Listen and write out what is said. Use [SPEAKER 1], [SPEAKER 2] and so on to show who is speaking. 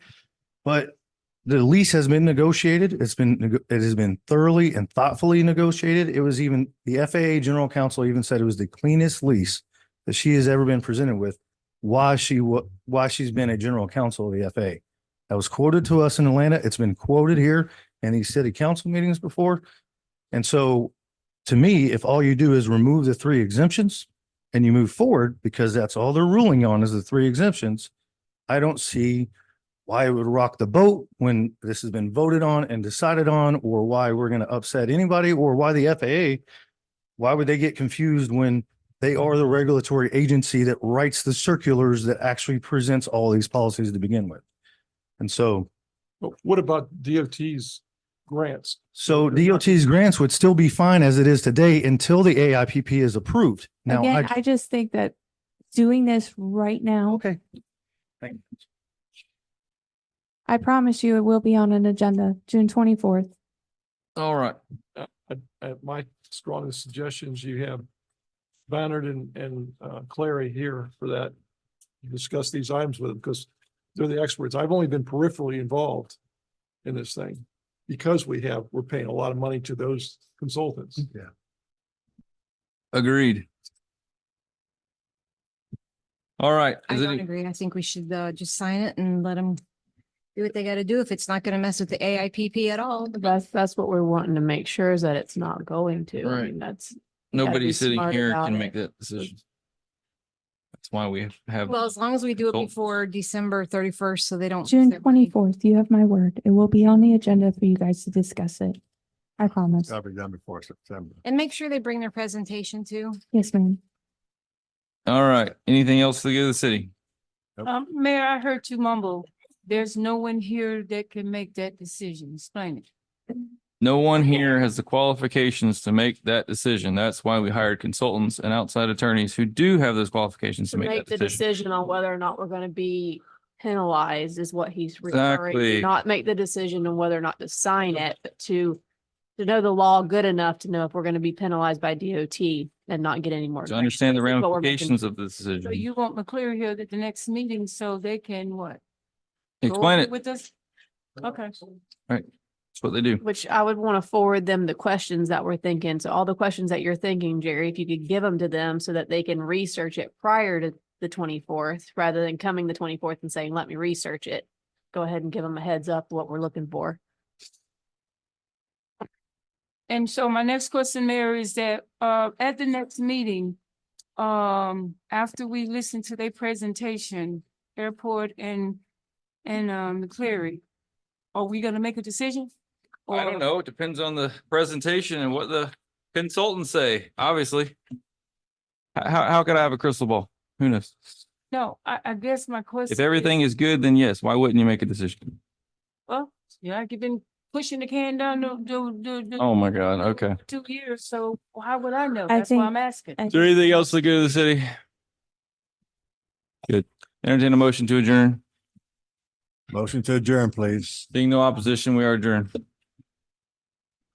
[SPEAKER 1] But the lease has been negotiated. It's been, neg- it has been thoroughly and thoughtfully negotiated. It was even, the FAA General Counsel even said it was the cleanest lease that she has ever been presented with. Why she, wa- why she's been a general counsel of the FAA. That was quoted to us in Atlanta. It's been quoted here in these city council meetings before. And so to me, if all you do is remove the three exemptions and you move forward, because that's all they're ruling on is the three exemptions, I don't see why it would rock the boat when this has been voted on and decided on, or why we're going to upset anybody, or why the FAA, why would they get confused when they are the regulatory agency that writes the circulars that actually presents all these policies to begin with? And so
[SPEAKER 2] But what about DOT's grants?
[SPEAKER 1] So
[SPEAKER 2] They're not-
[SPEAKER 1] DOT's grants would still be fine as it is today until the AIPP is approved. Now,
[SPEAKER 3] Again,
[SPEAKER 1] I,
[SPEAKER 3] I just think that doing this right now,
[SPEAKER 1] okay. Thank you.
[SPEAKER 3] I promise you it will be on an agenda, June twenty-fourth.
[SPEAKER 2] All right. Uh, uh, uh, my strongest suggestions, you have Bannard and, and, uh, Clary here for that. You Discuss these items with them because they're the experts. I've only been peripherally involved in this thing. Because we have, we're paying a lot of money to those consultants.
[SPEAKER 1] Yeah.
[SPEAKER 4] Agreed. All right.
[SPEAKER 5] I
[SPEAKER 4] Is
[SPEAKER 5] don't
[SPEAKER 4] any,
[SPEAKER 5] agree. I think we should uh just sign it and let them do what they gotta do if it's not gonna mess with the AIPP at all.
[SPEAKER 6] That's, that's what we're wanting to make sure is that it's not going to. I
[SPEAKER 4] Right.
[SPEAKER 6] mean, that's,
[SPEAKER 4] nobody
[SPEAKER 6] be
[SPEAKER 4] sitting
[SPEAKER 6] smart
[SPEAKER 4] here
[SPEAKER 6] about
[SPEAKER 4] can
[SPEAKER 6] it.
[SPEAKER 4] make that decision. That's why we have- have.
[SPEAKER 5] Well, as long as we do it
[SPEAKER 4] Cool.
[SPEAKER 5] before December thirty-first, so they
[SPEAKER 7] Oh,
[SPEAKER 5] don't. lose
[SPEAKER 3] June
[SPEAKER 5] their money.
[SPEAKER 3] twenty-fourth, you have my word. It will be on the agenda for you guys to discuss it. I promise.
[SPEAKER 8] That'll be done before September.
[SPEAKER 5] And make sure they bring their presentation too.
[SPEAKER 3] Yes, ma'am.
[SPEAKER 4] All right. Anything else to give the city?
[SPEAKER 7] Um, Mayor, I heard you mumble. There's no one here that can make that decision. Explain it.
[SPEAKER 4] No one here has the qualifications to make that decision. That's why we hired consultants and outside attorneys who do have those qualifications
[SPEAKER 6] to
[SPEAKER 4] to make
[SPEAKER 6] make the
[SPEAKER 4] that decision.
[SPEAKER 6] decision on whether or not we're gonna be penalized is what he's referring
[SPEAKER 4] Exactly.
[SPEAKER 6] to. Not make the decision on whether or not to sign it, but to, to know the law good enough to know if we're gonna be penalized by DOT and not get any more.
[SPEAKER 4] To understand the
[SPEAKER 6] grants. That's what we're making-
[SPEAKER 4] ramifications of the
[SPEAKER 7] So
[SPEAKER 4] decision.
[SPEAKER 7] you want McClear here at the next meeting so they can what? go
[SPEAKER 4] Explain
[SPEAKER 7] over
[SPEAKER 4] it.
[SPEAKER 7] With us? Okay.
[SPEAKER 4] That's what they do.
[SPEAKER 6] Which I would want to forward them the questions that we're thinking. So all the questions that you're thinking, Jerry, if you could give them to them so that they can research it prior to the twenty-fourth, rather than coming the twenty-fourth and saying, let me research it. Go ahead and give them a heads up what we're looking for.
[SPEAKER 7] And so my next question, Mayor, is that, uh, at the next meeting, um, after we listen to their presentation, airport and, and, um, McCleary, are we gonna make a decision?
[SPEAKER 4] I don't
[SPEAKER 7] Or-
[SPEAKER 4] know. It depends on the presentation and what the consultants say, obviously. H- How, how could I have a crystal ball? Who knows?
[SPEAKER 7] No, I, I guess my question.
[SPEAKER 4] If everything is good, then yes, why wouldn't you make a decision?
[SPEAKER 7] Well, yeah, I've been pushing the can down the, the, the.
[SPEAKER 4] Oh my God, okay.
[SPEAKER 7] Two years, so how would I know?
[SPEAKER 3] I
[SPEAKER 7] That's why
[SPEAKER 3] think-
[SPEAKER 7] I'm asking.
[SPEAKER 3] I-
[SPEAKER 4] Is there anything else to go to the city? Good. Entertain a motion to adjourn.
[SPEAKER 8] Motion to adjourn, please.
[SPEAKER 4] Being no opposition, we are adjourned.